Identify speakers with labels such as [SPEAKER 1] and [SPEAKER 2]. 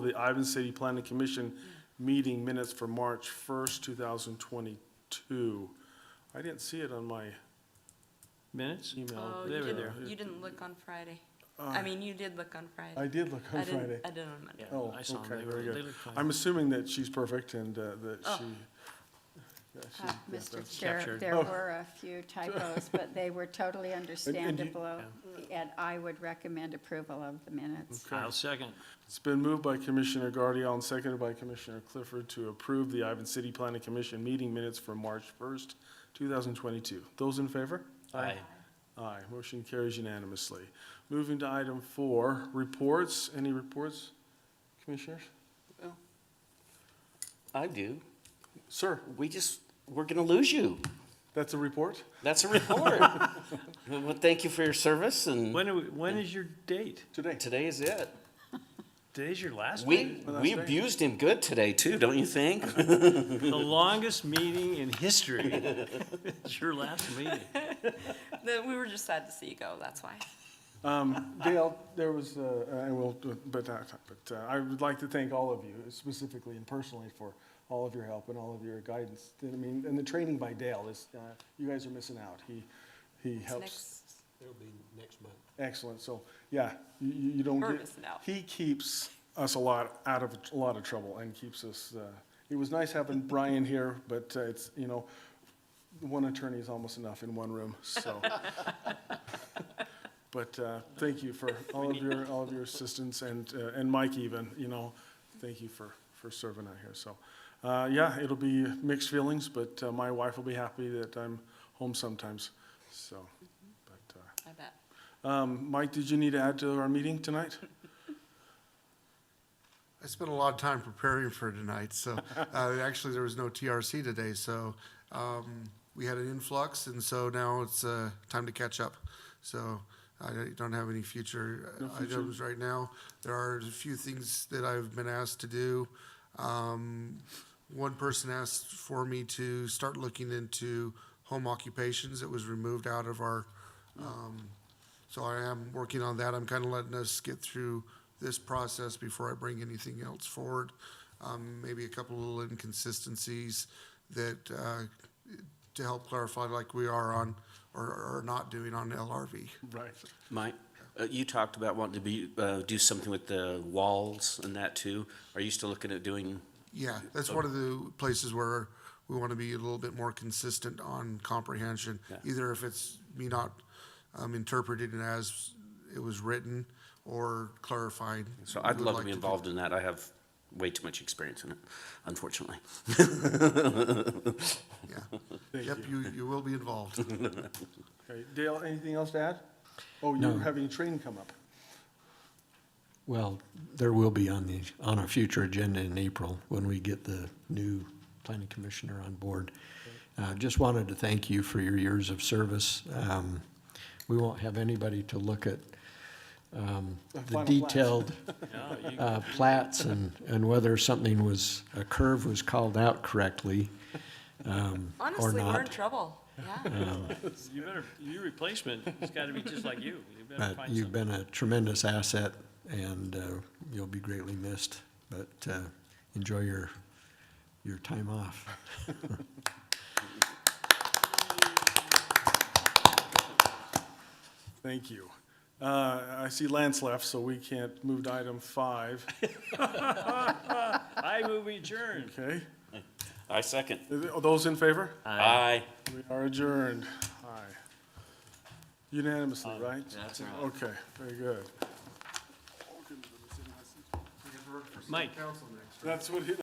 [SPEAKER 1] the Ivan City Planning Commission meeting minutes for March first, two thousand twenty-two. I didn't see it on my
[SPEAKER 2] Minutes?
[SPEAKER 1] email.
[SPEAKER 2] Oh,
[SPEAKER 1] There
[SPEAKER 2] you
[SPEAKER 1] we
[SPEAKER 2] did-
[SPEAKER 1] go.
[SPEAKER 3] You didn't look on Friday.
[SPEAKER 1] Uh,
[SPEAKER 3] I mean, you did look on
[SPEAKER 1] I
[SPEAKER 3] Friday.
[SPEAKER 1] did look on
[SPEAKER 3] I didn't.
[SPEAKER 1] Friday.
[SPEAKER 3] I did on Monday.
[SPEAKER 2] Yeah,
[SPEAKER 1] Oh,
[SPEAKER 2] I saw them.
[SPEAKER 1] okay,
[SPEAKER 2] They
[SPEAKER 1] very
[SPEAKER 2] were,
[SPEAKER 1] good.
[SPEAKER 2] they looked fine.
[SPEAKER 1] I'm assuming that she's perfect and uh, that
[SPEAKER 3] Oh. Ah,
[SPEAKER 1] she. that she-
[SPEAKER 4] Uh,
[SPEAKER 1] yeah,
[SPEAKER 4] Mr.
[SPEAKER 1] that's-
[SPEAKER 4] Chair,
[SPEAKER 2] Captured.
[SPEAKER 4] there
[SPEAKER 1] Oh.
[SPEAKER 4] were a few typos, but they were totally understandable, and I would recommend approval of the minutes.
[SPEAKER 2] I'll second.
[SPEAKER 1] It's been moved by Commissioner Guardiola and seconded by Commissioner Clifford to approve the Ivan City Planning Commission meeting minutes for March first, two thousand twenty-two. Those in favor?
[SPEAKER 2] Aye.
[SPEAKER 1] Aye, motion carries unanimously. Moving to item four, reports. Any reports, commissioners?
[SPEAKER 5] I do.
[SPEAKER 1] Sir,
[SPEAKER 5] We just, we're going to lose you.
[SPEAKER 1] that's a report?
[SPEAKER 5] That's a report. Well, thank you for your service and
[SPEAKER 2] When, are we- when is your date?
[SPEAKER 1] Today.
[SPEAKER 5] today is it.
[SPEAKER 2] Today's your last meeting?
[SPEAKER 5] We,
[SPEAKER 1] Well, that's
[SPEAKER 5] we
[SPEAKER 1] great.
[SPEAKER 5] abused him good today too, don't you think?
[SPEAKER 2] The longest meeting in history. It's your last meeting.
[SPEAKER 3] The- We were just sad to see you go, that's why.
[SPEAKER 1] Um, Dale, there was, uh, I will, but, uh, but uh, I would like to thank all of you specifically and personally for all of your help and all of your guidance. I mean, and the training by Dale is, uh, you guys are missing out. He, he
[SPEAKER 3] It's
[SPEAKER 1] helps.
[SPEAKER 3] next-
[SPEAKER 6] It'll be next month.
[SPEAKER 1] Excellent. So, yeah, you, you you don't
[SPEAKER 3] We're
[SPEAKER 1] get.
[SPEAKER 3] missing out.
[SPEAKER 1] He keeps us a lot, out of, a lot of trouble and keeps us, uh, it was nice having Brian here, but uh, it's, you know, one attorney is almost enough in one room, so. But, uh, thank you for all of your, all of your assistance and, uh, and Mike even, you know, thank you for, for serving out here, so. Uh, yeah, it'll be mixed feelings, but uh, my wife will be happy that I'm home sometimes, so, but, uh,
[SPEAKER 3] I bet.
[SPEAKER 1] um, Mike, did you need to add to our meeting tonight?
[SPEAKER 7] I spent a lot of time preparing for tonight, so, uh, actually, there was no TRC today, so, um, we had an influx, and so now it's, uh, time to catch up. So I don't have any future uh,
[SPEAKER 1] No future.
[SPEAKER 7] items right now. There are a few things that I've been asked to do. Um, one person asked for me to start looking into home occupations. It was removed out of our, um, so I am working on that. I'm kind of letting us get through this process before I bring anything else forward. Um, maybe a couple little inconsistencies that, uh, to help clarify like we are on, or, or not doing on LRV.
[SPEAKER 1] Right.
[SPEAKER 5] Mike, uh, you talked about wanting to be, uh, do something with the walls and that too. Are you still looking at doing,
[SPEAKER 7] Yeah, that's one of the places where we want to be a little bit more consistent on comprehension. Either if it's me not um, interpreting it as it was written or clarifying.
[SPEAKER 5] so
[SPEAKER 7] We
[SPEAKER 5] I'd
[SPEAKER 7] would
[SPEAKER 5] love
[SPEAKER 7] like
[SPEAKER 5] to be
[SPEAKER 7] do
[SPEAKER 5] involved in that. I have way too much experience in it, unfortunately.
[SPEAKER 7] that, Yeah. Yep, you, you will be involved.
[SPEAKER 1] Okay, Dale, anything else to add? Oh, you're
[SPEAKER 6] No.
[SPEAKER 1] having a train come up.
[SPEAKER 6] Well, there will be on the, on our future agenda in April when we get the new planning commissioner on board. Uh, just wanted to thank you for your years of service. Um, we won't have anybody to look at, um, the
[SPEAKER 1] Final plats.
[SPEAKER 6] detailed,
[SPEAKER 2] No, you-
[SPEAKER 6] uh, plats and, and whether something was, a curve was called out correctly, um, or
[SPEAKER 3] Honestly, we're in
[SPEAKER 6] not.
[SPEAKER 3] trouble, yeah.
[SPEAKER 2] You better, your replacement has got to be just like you. You better
[SPEAKER 6] But
[SPEAKER 2] find
[SPEAKER 6] you've
[SPEAKER 2] something.
[SPEAKER 6] been a tremendous asset, and uh, you'll be greatly missed. But uh, enjoy your, your time off.
[SPEAKER 1] Thank you. Uh, I see Lance left, so we can't move to item five,
[SPEAKER 2] I move adjourned.
[SPEAKER 1] okay?
[SPEAKER 5] I second.
[SPEAKER 1] Are Those in favor?
[SPEAKER 5] Aye.
[SPEAKER 1] We are adjourned. Aye. Unanimously, right?
[SPEAKER 2] that's
[SPEAKER 1] Okay, very good.
[SPEAKER 2] Mike.
[SPEAKER 1] That's what, he-